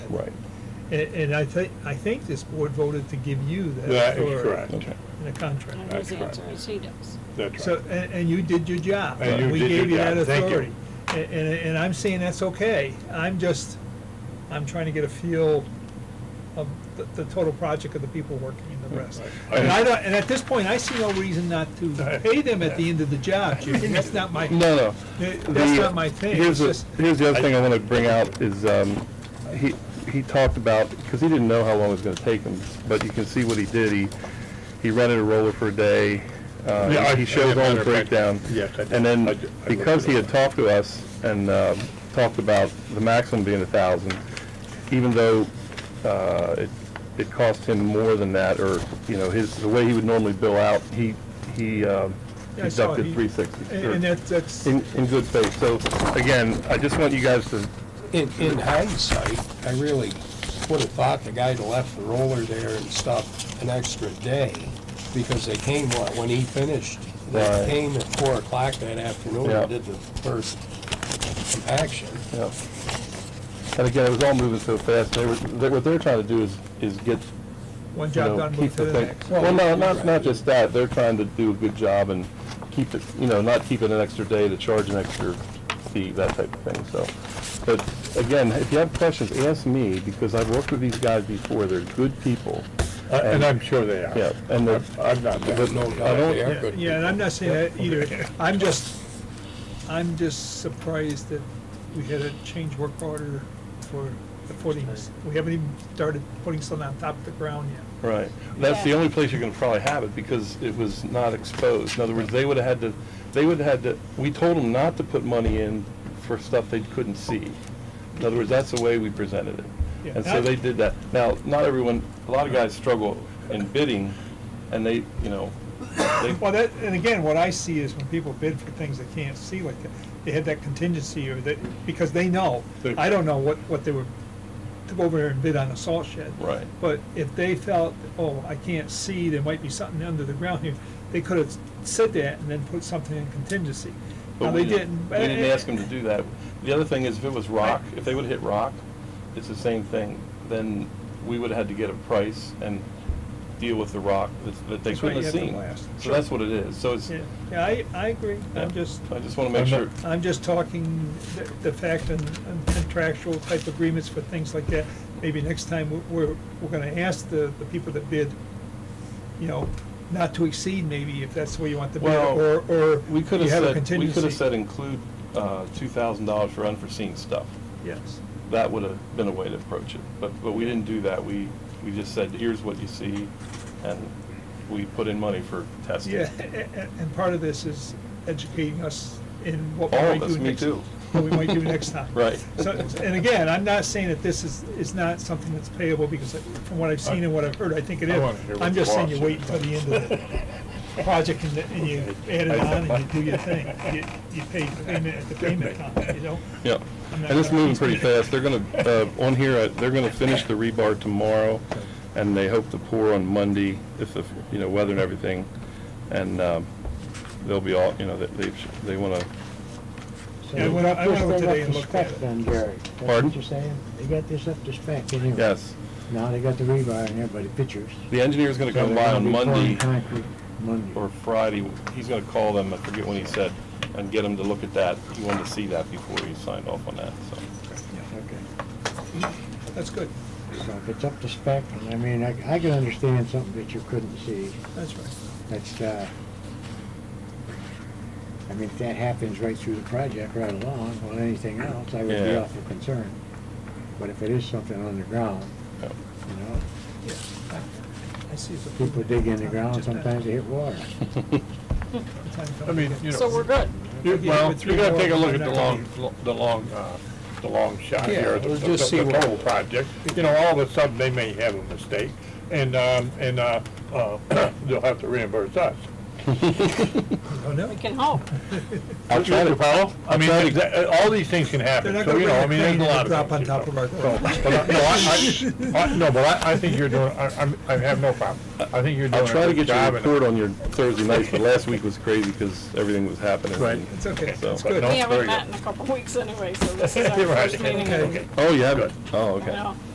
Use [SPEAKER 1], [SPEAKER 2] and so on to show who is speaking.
[SPEAKER 1] Right,
[SPEAKER 2] And, and I think, I think this board voted to give you that
[SPEAKER 3] That is
[SPEAKER 2] authority
[SPEAKER 3] correct.
[SPEAKER 1] okay.
[SPEAKER 2] in a contract.
[SPEAKER 3] That's
[SPEAKER 4] knows the
[SPEAKER 3] correct.
[SPEAKER 4] answer is he does.
[SPEAKER 3] That's
[SPEAKER 2] So,
[SPEAKER 3] right.
[SPEAKER 2] and, and you did your job.
[SPEAKER 3] And you
[SPEAKER 2] We
[SPEAKER 3] did your
[SPEAKER 2] gave you
[SPEAKER 3] job.
[SPEAKER 2] that
[SPEAKER 3] Thank you.
[SPEAKER 2] authority. A- And, and I'm saying that's okay. I'm just, I'm trying to get a feel of the, the total project of the people working in the rest.
[SPEAKER 3] Right.
[SPEAKER 2] And I don't, and at this point, I see no reason not to pay them at the end of the job, Judy. That's not my,
[SPEAKER 1] No, no.
[SPEAKER 2] that's
[SPEAKER 1] The-
[SPEAKER 2] not my thing. It's
[SPEAKER 1] Here's, the-
[SPEAKER 2] just,
[SPEAKER 1] here's the other thing I want to bring out is, um, he, he talked about, because he didn't know how long it was going to take him, but you can see what he did. He, he rented a roller for a day. uh,
[SPEAKER 3] Yeah, I-
[SPEAKER 1] He showed
[SPEAKER 3] as a
[SPEAKER 1] all
[SPEAKER 3] matter
[SPEAKER 1] the
[SPEAKER 3] of fact,
[SPEAKER 1] breakdown.
[SPEAKER 3] yes, I did.
[SPEAKER 1] And
[SPEAKER 3] I
[SPEAKER 1] then,
[SPEAKER 3] did- I
[SPEAKER 1] because
[SPEAKER 3] looked
[SPEAKER 1] he
[SPEAKER 3] it
[SPEAKER 1] had talked to us and um, talked about the maximum being a thousand, even though uh, it, it cost him more than that, or, you know, his, the way he would normally bill out, he, he um,
[SPEAKER 2] Yeah, I saw it.
[SPEAKER 1] deducted
[SPEAKER 2] He-
[SPEAKER 1] three sixty.
[SPEAKER 2] and and that's, that's,
[SPEAKER 1] In, in good faith. So again, I just want you guys to,
[SPEAKER 5] In, in hindsight, I really would have thought the guy left the roller there and stopped an extra day because they came, what, when he finished? They
[SPEAKER 1] Right.
[SPEAKER 5] came at four o'clock that afternoon
[SPEAKER 1] Yeah.
[SPEAKER 5] and did the first compaction.
[SPEAKER 1] you know, and again, it was all moving so fast. They were, they- what they're trying to do is, is get,
[SPEAKER 2] one
[SPEAKER 1] you
[SPEAKER 2] job
[SPEAKER 1] know,
[SPEAKER 2] done,
[SPEAKER 1] keep
[SPEAKER 2] move to
[SPEAKER 1] the
[SPEAKER 2] the
[SPEAKER 1] thing.
[SPEAKER 2] next.
[SPEAKER 1] Well, no, not, not just that. They're trying to do a good job and keep it, you know, not keep it an extra day to charge an extra fee, that type of thing, so. But again, if you have questions, ask me, because I've worked with these guys before. They're good people.
[SPEAKER 3] Uh, And I'm sure they are.
[SPEAKER 1] Yeah, and the-
[SPEAKER 3] I'm- I'm not
[SPEAKER 5] But no
[SPEAKER 3] that.
[SPEAKER 5] doubt they are good
[SPEAKER 2] Yeah, and I'm not saying that either. I'm just, I'm just surprised that we had a change work order for the footings. We haven't even started putting something on top of the ground yet.
[SPEAKER 1] Right. That's the
[SPEAKER 4] Yeah.
[SPEAKER 1] only place you're gonna probably have it because it was not exposed. In other words, they would've had to, they would've had to, we told them not to put money in for stuff they couldn't see. In other words, that's the way we presented
[SPEAKER 2] Yeah.
[SPEAKER 1] it. And so they did that. Now, not everyone, a lot of guys struggle in bidding and they, you know, they,
[SPEAKER 2] Well, that, and again, what I see is when people bid for things they can't see, like, that, they had that contingency or that, because they know.
[SPEAKER 1] They-
[SPEAKER 2] I don't know what, what they were, to go over there and bid on a salt shed.
[SPEAKER 1] Right.
[SPEAKER 2] But if they felt, oh, I can't see, there might be something under the ground here, they could have said that and then put something in contingency. Now,
[SPEAKER 1] but
[SPEAKER 2] they
[SPEAKER 1] we
[SPEAKER 2] didn't.
[SPEAKER 1] didn't, we didn't ask them to do that. The other thing is if it was rock, if they would've hit rock, it's the same thing, then we would've had to get a price and deal with the rock that- that they
[SPEAKER 2] That's right,
[SPEAKER 1] couldn't have
[SPEAKER 2] you have to
[SPEAKER 1] seen.
[SPEAKER 2] blast.
[SPEAKER 1] So that's what it is. So it's,
[SPEAKER 2] Yeah, yeah, I, I agree. I'm just,
[SPEAKER 1] I just want to make
[SPEAKER 3] I'm
[SPEAKER 1] sure.
[SPEAKER 3] not-
[SPEAKER 2] I'm just talking the- the fact and and contractual type agreements for things like that. Maybe next time we're- we're, we're gonna ask the, the people that bid, you know, not to exceed maybe if that's the way you want the bid,
[SPEAKER 1] Well,
[SPEAKER 2] or, or
[SPEAKER 1] We could
[SPEAKER 2] you have
[SPEAKER 1] have
[SPEAKER 2] a
[SPEAKER 1] said, we
[SPEAKER 2] contingency.
[SPEAKER 1] could have said include uh, two thousand dollars for unforeseen stuff.
[SPEAKER 2] Yes,
[SPEAKER 1] That would have been a way to approach it, but, but we didn't do that. We, we just said, here's what you see, and we put in money for testing.
[SPEAKER 2] yeah, and, and part of this is educating us in what we
[SPEAKER 1] All
[SPEAKER 2] might do
[SPEAKER 1] of
[SPEAKER 2] next.
[SPEAKER 1] us, me too.
[SPEAKER 2] What we might do next time.
[SPEAKER 1] Right.
[SPEAKER 2] So, and again, I'm not saying that this is, is not something that's payable, because from what I've seen and what I've heard, I think it
[SPEAKER 3] I wanna hear
[SPEAKER 2] is.
[SPEAKER 3] what
[SPEAKER 2] I'm just
[SPEAKER 3] the
[SPEAKER 2] saying you
[SPEAKER 3] boss
[SPEAKER 2] wait
[SPEAKER 3] said.
[SPEAKER 2] until the end of the project and, and you add it on and you do your thing. You, you pay payment at the payment time, you know?
[SPEAKER 1] Yeah,
[SPEAKER 2] I'm not
[SPEAKER 1] and it's
[SPEAKER 2] gonna-
[SPEAKER 1] moving pretty fast. They're gonna, uh, on here, uh, they're gonna finish the rebar tomorrow, and they hope to pour on Monday if, the you know, weather and everything. And, um, they'll be all, you know, they, they- they wanna,
[SPEAKER 2] Yeah, I went- I went over today and looked at it.
[SPEAKER 6] Then, Gary. That's
[SPEAKER 1] Pardon?
[SPEAKER 6] what you're saying? They got this up to spec anyway.
[SPEAKER 1] yes.
[SPEAKER 6] Now they got the rebar and everybody pictures.
[SPEAKER 1] The engineer's gonna
[SPEAKER 6] So
[SPEAKER 1] come
[SPEAKER 6] they're
[SPEAKER 1] by
[SPEAKER 6] gonna
[SPEAKER 1] on
[SPEAKER 6] be pouring
[SPEAKER 1] Monday.
[SPEAKER 6] Concrete Monday.
[SPEAKER 1] or Friday, he's gonna call them, I forget when he said, and get them to look at that. He wanted to see that before he signed off on that, so.
[SPEAKER 6] Okay.
[SPEAKER 2] That's good,
[SPEAKER 6] So if it's up to spec, and I mean, I, I can understand something that you couldn't see.
[SPEAKER 2] that's right.
[SPEAKER 6] That's, uh, I mean, if that happens right through the project right along, well, anything else, I would be
[SPEAKER 1] Yeah.
[SPEAKER 6] awful concerned. But if it is something underground,
[SPEAKER 1] yeah.
[SPEAKER 6] you know,
[SPEAKER 2] Yeah, I- I see it's a-
[SPEAKER 6] people dig in the ground, sometimes they hit water.
[SPEAKER 3] I mean, you know.
[SPEAKER 4] So we're good.
[SPEAKER 3] You-
[SPEAKER 2] Okay,
[SPEAKER 3] Well,
[SPEAKER 2] with three
[SPEAKER 3] you gotta
[SPEAKER 2] more,
[SPEAKER 3] take a look
[SPEAKER 2] I'm
[SPEAKER 3] at the
[SPEAKER 2] not
[SPEAKER 3] long, the long, uh, the long shot
[SPEAKER 5] Yeah,
[SPEAKER 3] here, the
[SPEAKER 5] we'll
[SPEAKER 3] the-
[SPEAKER 5] just see
[SPEAKER 3] the
[SPEAKER 5] what-
[SPEAKER 3] total project. You know, all of a sudden, they may have a mistake, and, um, and, uh, uh, they'll have to reimburse us.
[SPEAKER 2] Oh, no.
[SPEAKER 4] We can hope.
[SPEAKER 1] I'll try
[SPEAKER 3] You
[SPEAKER 1] to-
[SPEAKER 3] follow? I mean,
[SPEAKER 1] try to-
[SPEAKER 3] that- all these things can happen,
[SPEAKER 2] They're not
[SPEAKER 3] so,
[SPEAKER 2] gonna
[SPEAKER 3] you know, I
[SPEAKER 2] bring
[SPEAKER 3] mean,
[SPEAKER 2] a
[SPEAKER 3] there's
[SPEAKER 2] crane
[SPEAKER 3] a lot
[SPEAKER 2] and
[SPEAKER 3] of.
[SPEAKER 2] drop on
[SPEAKER 3] things, you
[SPEAKER 2] top of
[SPEAKER 3] know.
[SPEAKER 2] our car.
[SPEAKER 3] But I- No, I, I, I- no, but I, I think you're doing, I, I'm- I have no problem. I think you're doing
[SPEAKER 1] I'll try
[SPEAKER 3] a
[SPEAKER 1] to
[SPEAKER 3] good
[SPEAKER 1] get you a
[SPEAKER 3] job. and-
[SPEAKER 1] report on your Thursday nights, but last week was crazy because everything was happening.
[SPEAKER 3] Right.
[SPEAKER 2] It's okay,
[SPEAKER 1] So-
[SPEAKER 2] it's good.
[SPEAKER 4] We
[SPEAKER 3] very
[SPEAKER 4] haven't
[SPEAKER 3] good.
[SPEAKER 4] met in a couple of weeks anyway, so this is our
[SPEAKER 3] Right,
[SPEAKER 4] first meeting.
[SPEAKER 2] Okay.
[SPEAKER 3] okay.
[SPEAKER 1] Oh, you have it? Oh,
[SPEAKER 4] I
[SPEAKER 1] okay.
[SPEAKER 4] know.